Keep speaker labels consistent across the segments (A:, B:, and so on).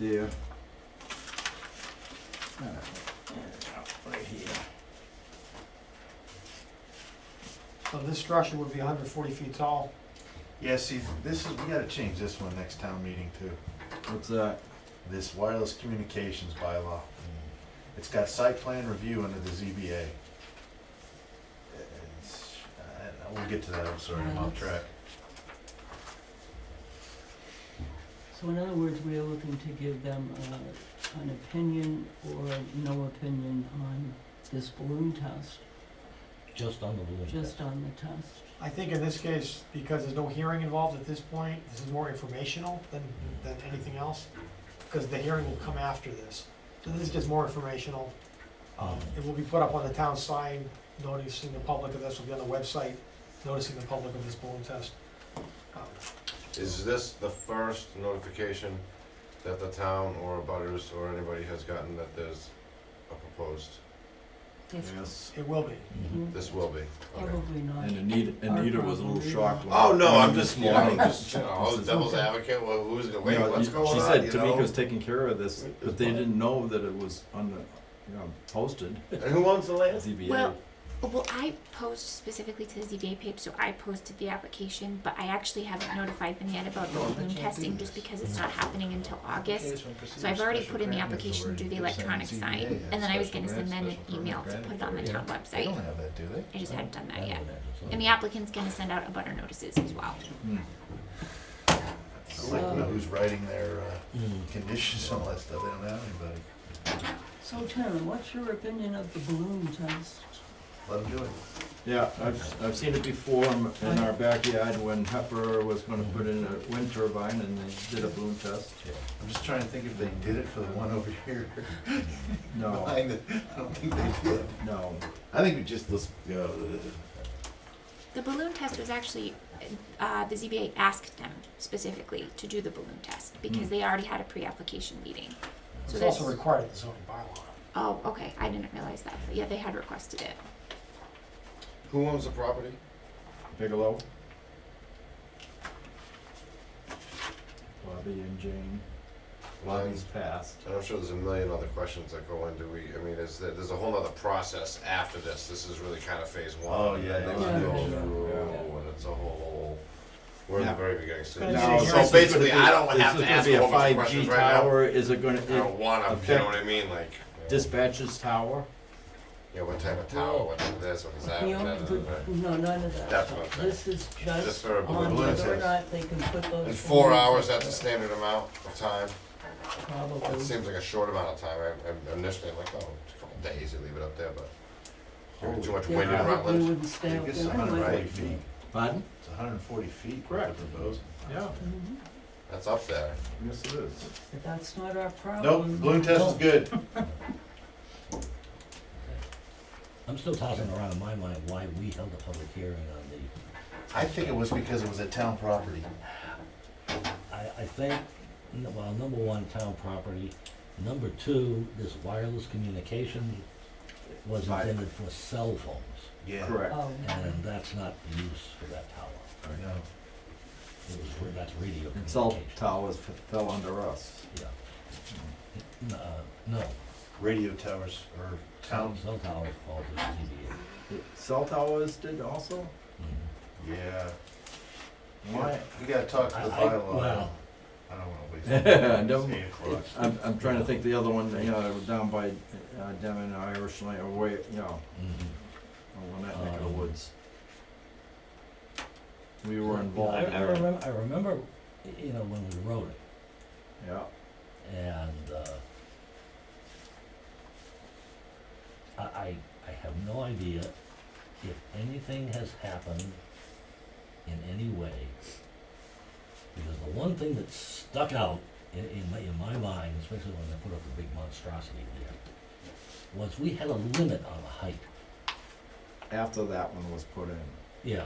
A: Yeah.
B: Right here.
C: So this structure would be hundred forty feet tall.
B: Yeah, see, this is, we gotta change this one next town meeting too.
A: What's that?
B: This wireless communications bylaw. It's got site plan review under the ZBA. It's- I- uh, We'll get to that, I'm sorry, I'm off track.
D: So in other words, we are looking to give them uh, an opinion or no opinion on this balloon test,
E: Just on the balloon test.
D: just on the test.
C: I think in this case, because there's no hearing involved at this point, this is more informational than, than anything else, because the hearing will come after this. So this is just more informational. Um, it will be put up on the town sign, noticing the public of this, will be on the website, noticing the public of this balloon test. Um,
F: Is this the first notification that the town or abutters or anybody has gotten that there's a proposed?
B: Yes.
C: It will be.
E: Mhm.
D: Hmm?
F: This will be. Okay.
D: Probably not.
A: And Anita, Anita was a little shocked. when-
F: Oh, no, I'm just,
A: Yeah.
F: yeah, I'm just, you know, I was
A: This is-
F: devil's advocate, well, who's gonna,
A: You
F: wait,
A: know,
F: what's
A: you-
F: going on,
A: She
F: you
A: said
F: know?
A: Tamika's taking care of this,
F: Wait,
A: but
F: this
A: they
F: one.
A: didn't know that it was on the, you know, posted,
F: And who owns the land?
A: ZBA.
G: Well, well, I post specifically to the ZBA page, so I posted the application, but I actually haven't notified them yet about the
B: No, they
G: balloon
B: Oh, can't do
G: testing just
B: this.
G: because it's not happening until August. So I've already put in the application to do the electronic sign, and then I was gonna send them an email to put it on the town
B: They don't
G: website.
B: have that, do they?
G: I just hadn't done
E: I
G: that yet.
E: would imagine so.
G: And the applicant's gonna send out a butter notices as well.
A: Hmm.
B: I'd like uh, to know who's writing their uh, conditions and all that stuff, they don't have anybody.
D: So Tim, what's your opinion of the balloon test?
B: Let them do it.
A: Yeah, I've, I've seen it before in in our backyard when Pepper was gonna put in a wind turbine and they did a balloon test.
B: I'm just trying to think if they did it for the one over here
A: No,
B: behind it. I don't think they did.
A: no.
B: I think we just, let's, uh,
G: The balloon test was actually, uh, the ZBA asked them specifically to do the balloon test because
B: Hmm.
G: they already had a pre-application meeting. So
C: It's also
G: there's,
C: required in the zoning bylaw.
G: oh, okay, I didn't realize that, but yeah, they had requested it.
F: Who owns the property?
A: Bigelow? Bobby and Jane. Bobby's
F: Lines?
A: passed.
F: And I'm sure there's a million other questions that go into, we, I mean, is, there- there's a whole other process after this, this is really kind of phase one.
B: Oh, yeah,
F: And
B: yeah,
F: then
D: yeah,
F: we go
A: yeah.
F: through, and it's a whole, we're in the
A: Yeah.
F: very beginning stages.
C: No, so
F: So
C: it's
F: basically, I don't have to ask a whole bunch of
A: Is this gonna
F: questions
A: be a 5G
F: right now.
A: tower, is it gonna,
F: I don't
A: it
F: wanna, you know what I mean, like,
A: dispatches tower?
F: you know, what type of tower, what is this, what is that,
D: The
F: what
D: only
F: that,
D: good-
F: that, that.
D: No, none of that.
F: That's what I'm saying.
D: This is
F: Just
D: just
F: for a
D: on
F: balloon
D: whether or
B: test.
D: not they can put those.
F: In four
D: balloons
F: hours,
D: up
F: that's a
D: there.
F: standard amount of time, it
D: Probably.
F: seems like a short amount of time, I, I initially, I'm like, oh, it's a couple days, you leave it up there, but. Given too much
D: They
F: wind in
D: probably
F: Rutland,
D: wouldn't stay up
B: it's
D: there
B: hundred and
D: anyway. Mm-hmm.
B: forty feet.
A: Pardon?
B: It's hundred and forty feet. what
A: Correct.
B: they proposed.
A: Yeah,
D: Mhm.
F: that's up there.
A: yes it is.
D: But that's not our
B: Nope,
D: problem. Oh.
B: balloon test is good.
E: I'm still tossing around in my mind why we held a public hearing on the,
B: I think it was because it was a town property.
E: I, I think, n- well, number one, town property. Number two, this wireless communication was
A: Right.
E: intended for cell phones,
B: Yeah.
A: Correct.
D: Oh,
E: and that's not the use for that tower.
B: No.
E: It was for, that's radio
A: And cell
E: communication.
A: towers f- fell under us.
E: Yeah. N- uh, No,
B: Radio towers or
E: cell,
B: town.
E: cell tower falls to the ZBA.
A: It- Hmm. Cell towers did also?
E: Mhm.
B: Yeah.
A: Why?
B: We gotta talk to
E: Mm-hmm. I-
B: the
E: I-
B: bylaw.
E: well,
B: I don't wanna waste.
A: No.
B: Eight o'clock.
A: I'm, I'm trying to think the other one, you know, down by, uh, down in Irish Lane, or way, you know,
E: mhm.
A: over in Oh, that neck of the
E: Um,
A: woods. We were
E: mm-hmm. I,
A: involved in
E: I
A: that,
E: remember, I remember, y- you know, when we wrote it,
A: yeah.
E: and, uh, I, I, I have no idea if anything has happened in any way. Because the one thing that stuck out in, in my, in my mind, especially when they put up the big monstrosity there, was we had a limit on the height.
A: After that one was put in,
E: Yeah,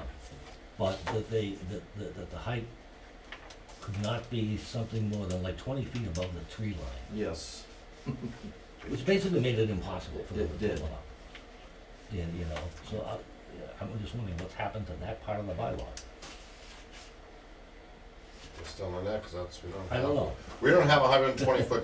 E: but that they, that, that, that the height could not be something more than like twenty feet above the tree line,
A: yes.
E: which basically made it impossible for them
A: It
E: to
A: did.
E: pull it up. Yeah, you know, so I, yeah, I'm just wondering what's happened to that part of the bylaw.
F: We're still on that, cause that's, we don't have.
E: I don't know.
F: We don't have a hundred and twenty foot